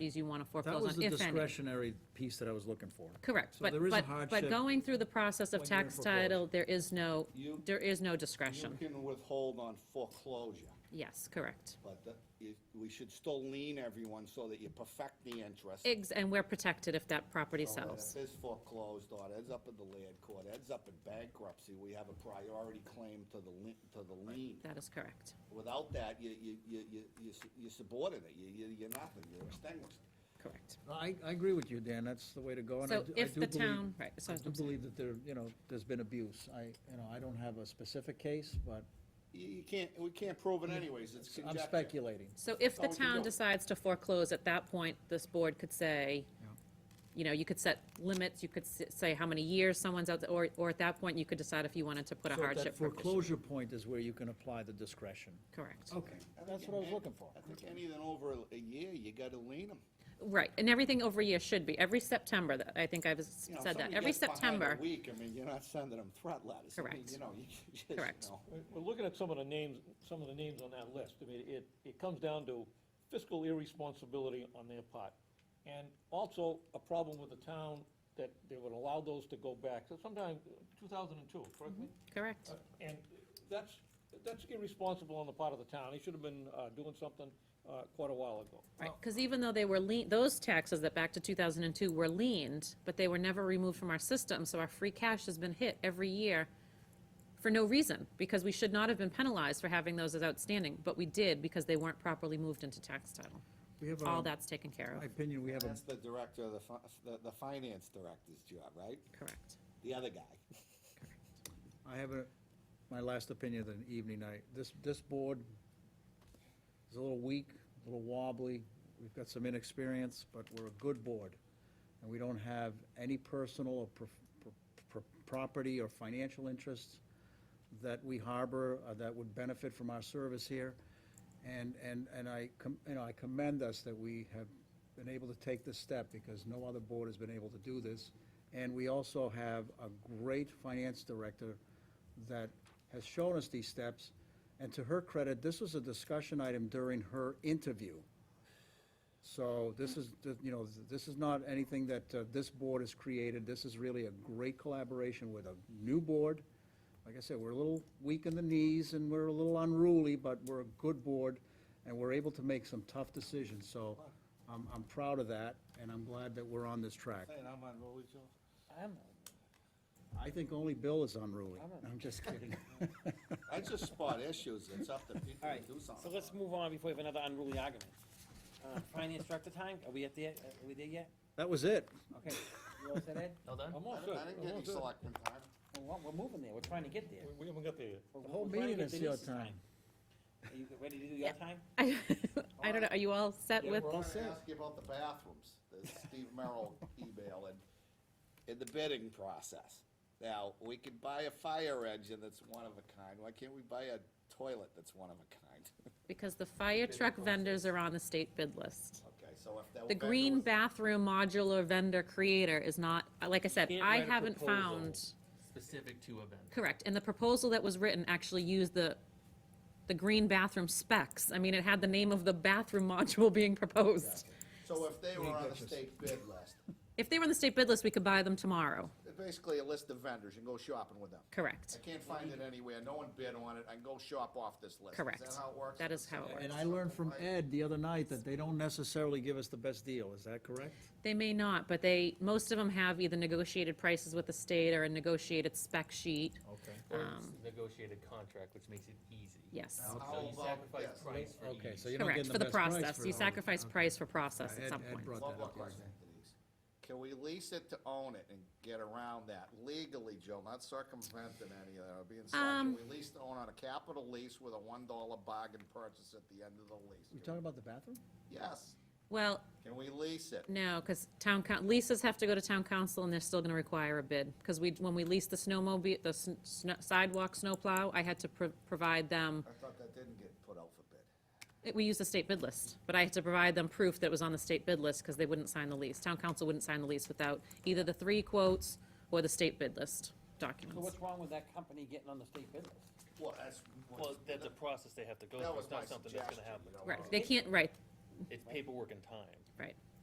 properties you want to That foreclose was on, the if any. discretionary piece that I was looking for. Correct, So but, there is a but, but hardship going through the process of when you're in tax foreclosure. title, there is no, You- there is no You discretion. can withhold on foreclosure, Yes, correct. but the- you- we should still lean everyone so that you perfect the interest. Ex- And we're protected if that property So that sells. If it's foreclosed on, ends up in the land court, ends up in bankruptcy, we have a priority claim to the lien, to the lien. That is correct. Without that, you, you, you, you, you su- you're subordinate, you, you- you're nothing, you're extinguished. Correct. I, I agree with you, Dan, that's the way to go. and I So do- I if do the believe- town- right, so I that's do what I'm saying. believe that there, you know, there's been abuse. I, you know, I don't have a specific case, but You, you can't, we can't prove it anyways, it's I'm conjecture. speculating. So if the all we can town do. decides to foreclose, at that point, this board could say, you know, you could set limits, you could s- say how many years someone's out, or, or at that point, you could decide if you wanted to put a So at hardship that provision. foreclosure point is where you can apply the discretion. Correct. Okay, that's what I was looking for. I think anything over a- a year, you gotta lean them. Right, and everything over a year should be, every September, that- I think I've s- You know, if said that, somebody every gets behind a September. Week, I mean, you're not sending them threat letters. I mean, Correct. You know, you just, you Correct. know. We're- We're looking at some of the names, some of the names on that list. I mean, it, it comes down to fiscal irresponsibility on their part. And also a problem with the town that they would allow those to go back. So sometime, two thousand and two, correct me? Uh, Correct, Mm-hmm. And that's, that's irresponsible on the part of the town. They should have been uh, doing something uh, quite a while ago. right, because even though they were lien, those taxes that back to 2002 were leaned, but they were never removed from our system, so our free cash has been hit every year for no reason, because we should not have been penalized for having those as outstanding, but we did because they weren't properly moved into tax title. We have um, All a- that's taken care My of, opinion, we have a, That's the director, of the, fi- the, the finance director's job, right? correct. The other guy. I have a, my last opinion of the evening, I, this, this board is a little weak, a little wobbly. We've got some inexperience, but we're a good board. And we don't have any personal or prof- pro- pro- property or financial interests that we harbor, uh, that would benefit from our service here. And, and, and I, com- you know, I commend us that we have been able to take this step because no other board has been able to do this. And we also have a great finance director that has shown us these steps. And to her credit, this was a discussion item during her interview. So this is, th- you know, this is not anything that uh, this board has created. This is really a great collaboration with a new board. Like I said, we're a little weak in the knees and we're a little unruly, but we're a good board and we're able to make some tough decisions. So I'm, I'm proud of that and I'm glad that we're on this track. Saying I'm on roll with you. Um, I think only Bill is unruly. I'm just kidding. I just spot issues, it's up to people All to right, do something. so let's move on before we have another unruly argument. Uh, Finance director time, are we at the, uh, are we there yet? That was it. Okay, you all set, Ed? Well done. I'm I all didn't- set. I didn't I'm get all any set. selectmen time. Well, we're moving there, we're trying to get there. We- We haven't got there yet. We're- The whole we're trying to meeting get is your Denise's time. Are you ready to do your time? I I don't know, are you all set Yeah, with, We're all I'm gonna set. ask you about the bathrooms, the Steve Merrill email and, and the bidding process. Now, we could buy a fire engine that's one of a kind, why can't we buy a toilet that's one of a kind? because the fire truck vendors are on the state bid list. Okay, so if that. The vendor green was- bathroom modular vendor creator is not, like I said, can't I write a haven't proposal. found, specific to a vendor. correct, and the proposal that was written actually used the, the green bathroom specs. I mean, it had the name of the bathroom module being proposed. So if they were on the state bid list, If they were on the state bid list, we could buy them tomorrow, basically a list of vendors, you can go shopping with them. correct, I can't find it anywhere, no one bid on it, I can go shop off this list. Is correct. that how it works? That is how it And works. I learned from Ed the other night that they don't necessarily give us the best deal. Is that correct? They may not, but they, most of them have either negotiated prices with the state or a negotiated spec sheet, Okay. Or it's negotiated contract, which makes it easy. yes. So you How about sacrifice this? price for Okay, ease. so you're not Correct, getting for the the best price. process, you for- sacrifice price for process Ed- at some Ed point. brought One that more up. yeah. question, Denise. Can we lease it to own it and get around that legally, Joe, not circumventing any of that, or being, slack? can Um, we lease to own on a capital lease with a one dollar bargain purchase at the end of the You lease? talking about the bathroom? Yes, Well, can we lease it? no, because town, coun- leases have to go to town council, and they're still gonna require a bid. Because we, when we leased the snowmobile, the s- sn- sidewalk snowplow, I had to pro- provide them, I thought that didn't get put out for bid. we used the state bid list, but I had to provide them proof that it was on the state bid list, because they wouldn't sign the lease. Town council wouldn't sign the lease without either the three quotes or the state bid list So documents. what's wrong with that company getting on the state bid list? Well, that's. Well, that's a process they have to go That through, was it's my not something that's suggestion, uh, gonna happen. you know. Right, they can't, right, It's paperwork and time. right.